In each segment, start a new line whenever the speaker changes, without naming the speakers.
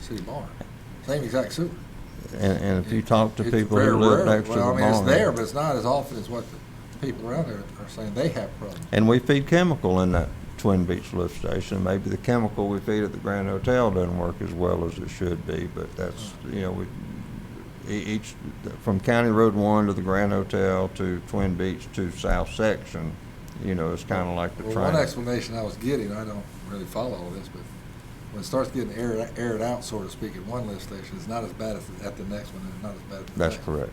city barn. Same exact sewer.
And, and if you talk to
It's
people
very
who live
rare.
next to the
Well, I mean, it's there, but
barn,
it's not as often as what the people around there are saying they have problems.
and we feed chemical in that Twin Beach lift station, maybe the chemical we feed at the Grand Hotel doesn't work as well as it should be, but that's, you know, we, e- each, from County Road One to the Grand Hotel to Twin Beach to South Section, you know, it's kinda like the
Well, one
triangle.
explanation I was getting, I don't really follow all this, but when it starts getting aired, aired out, so to speak, at one lift station, it's not as bad as at the next one, and not as bad at the
That's
next.
correct.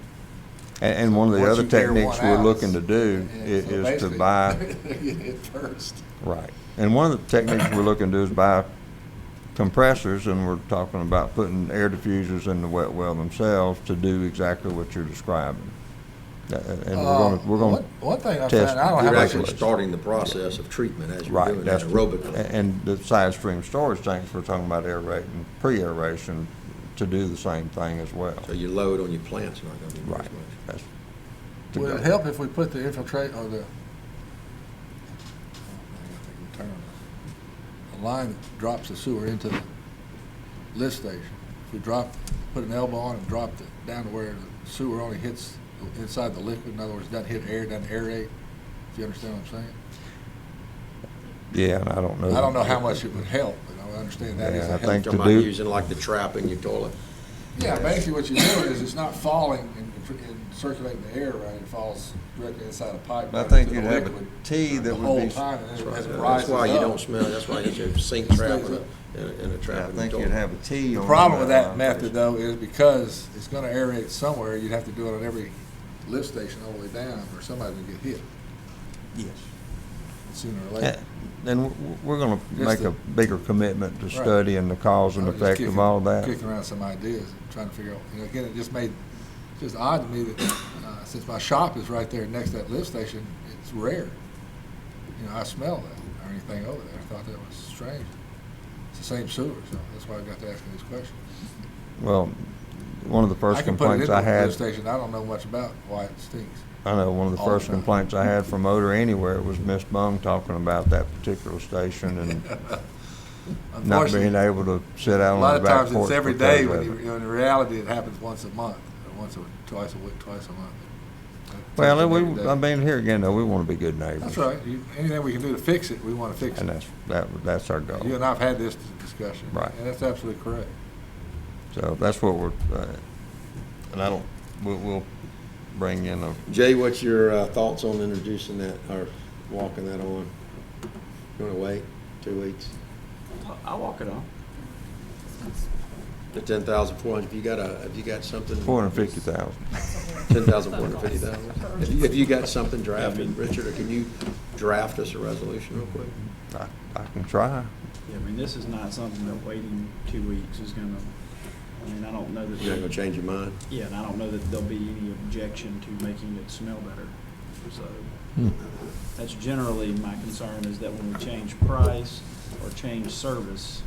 And, and one of the
Once
other
you tear
techniques
one
we're
out,
looking to do i-
Yeah, so
is to
basically,
buy,
you hit first.
right. And one of the techniques we're looking to do is buy compressors, and we're talking about putting air diffusers in the wet well themselves to do exactly what you're describing. Uh, And we're gonna,
Uh,
we're gonna,
one- One thing I
test
found, I don't have
the
You're
much
actually
regulation.
starting the process of treatment as you're
right,
doing that
that's,
aerobically.
a- and the side stream storage tanks, we're talking about aerate and pre-aeration to do the same thing as well.
So your load on your plant's not gonna be very much.
Right. That's to
Would it
go.
help if we put the infiltrate or the, the term, the line that drops the sewer into the lift station? If we drop, put an elbow on and drop it down to where the sewer only hits inside the liquid, in other words, doesn't hit air, doesn't aerate, if you understand what I'm saying?
Yeah, and I don't know.
I don't know how much it would help, but I understand that is a
Oh. Yeah, I
help.
think-
Talking
To
about
do-
using like the trap in your toilet.
Yeah, basically what you're doing is it's not falling and and circulating the air around, it falls directly inside a pipe.
I
right
think
into
you'd
the
have a
liquid
T
the
that would
whole
be.
time, and then as it
That's
rises
why you
up.
don't smell, that's why you have a sink
It
trap
stays
and
up.
a- and a, and a
I
trap in your
think you'd
toilet.
have a T on. uh,
The problem with that
line.
method though is because it's gonna aerate somewhere, you'd have to do it on every lift station all the way down, or somebody would get hit
Yes.
sooner or
Yeah,
later.
Then w- we're going to
Just
make
the-
a bigger commitment to
Right.
studying the cause and
I was Oh, just
effect of
kicking-
all that.
Kicking around some ideas, and trying to figure out, you know, again, it just made, it's just odd to me that, uh, since my shop is right there next to that lift station, it's rare. You know, I smell that or anything over there. I thought that was strange. It's the same sewer, so that's why I got to asking these questions.
Well, one of the
I
first
can put it
complaints
into
I
a
had,
lift station. I don't know much about why it stinks.
I know, one of the
all the
first
time.
complaints I had from Odor Anywhere was Miss Bung talking about that particular station and not being
Unfortunately,
able to sit out
a
on
lot
the
of
back porch.
times it's every
because
day, when
of
you,
it.
you know, in reality, it happens once a month, or once or twice a week, twice a month.
Well,
Every
we,
day.
I mean, here again, though, we want to be good neighbors.
That's right. You- Anything we can do to fix it, we want to fix
And
it.
that's, that, that's our goal.
You and I've had this discussion.
Right.
And that's absolutely correct.
So that's what we're, uh, and I don't, we'll, we'll bring in a,
Jay, what's your uh, thoughts on introducing that or walking that on? You wanna wait two weeks?
I'll walk it on.
The ten thousand four hundred, if you got a, if you got something.
four hundred fifty thousand.
Ten thousand four hundred fifty thousand? If you, if you got something drafted, Richard, or can you draft us a resolution real quick?
I, I can try.
Yeah, I mean, this is not something that waiting two weeks is gonna, I mean, I don't know that.
You're not gonna change your mind?
Yeah, and I don't know that there'll be any objection to making it smell better. So
Hmm.
that's generally my concern is that when we change price or change service,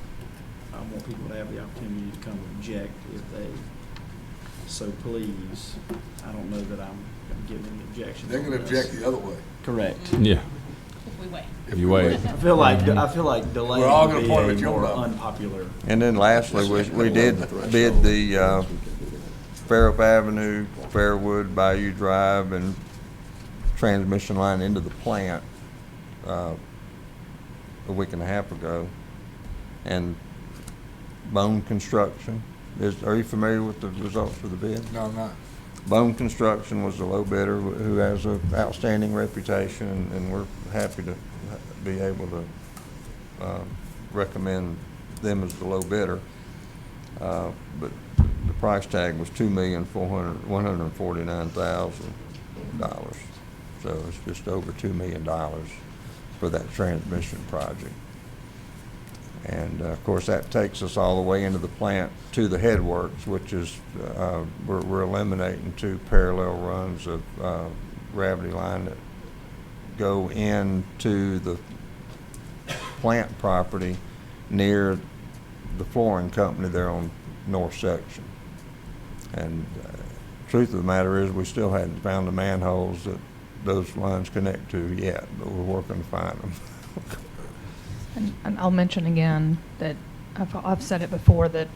I want people to have the opportunity to come object if they so please. I don't know that I'm giving any objections.
They're going to
on this.
object the other way.
Correct.
Yeah,
We wait.
If
You
we
wait.
I feel like, I feel like delaying
We're all gonna
would be
point at
a
your
more
problem.
unpopular
And then lastly, we, we did bid the, uh, Fairhope Avenue, Fairwood, Bayou Drive, and transmission line into the plant, uh, a week and a half ago. And Bone Construction, is, are you familiar with the results of the bid?
No, I'm not.
Bone Construction was the low bidder wh- who has an outstanding reputation, and- and we're happy to ha- be able to um, recommend them as the low bidder. Uh, But the price tag was two million four hundred one hundred forty-nine thousand dollars. So it's just over $2 million for that transmission project. And uh, of course, that takes us all the way into the plant to the headworks, which is, uh, we're, we're eliminating two parallel runs of uh, gravity line that go into the plant property near the flooring company there on north section. And uh, truth of the matter is, we still hadn't found the manholes that those lines connect to yet, but we're working to find them.
And and I'll mention again that I've, I've said it before, that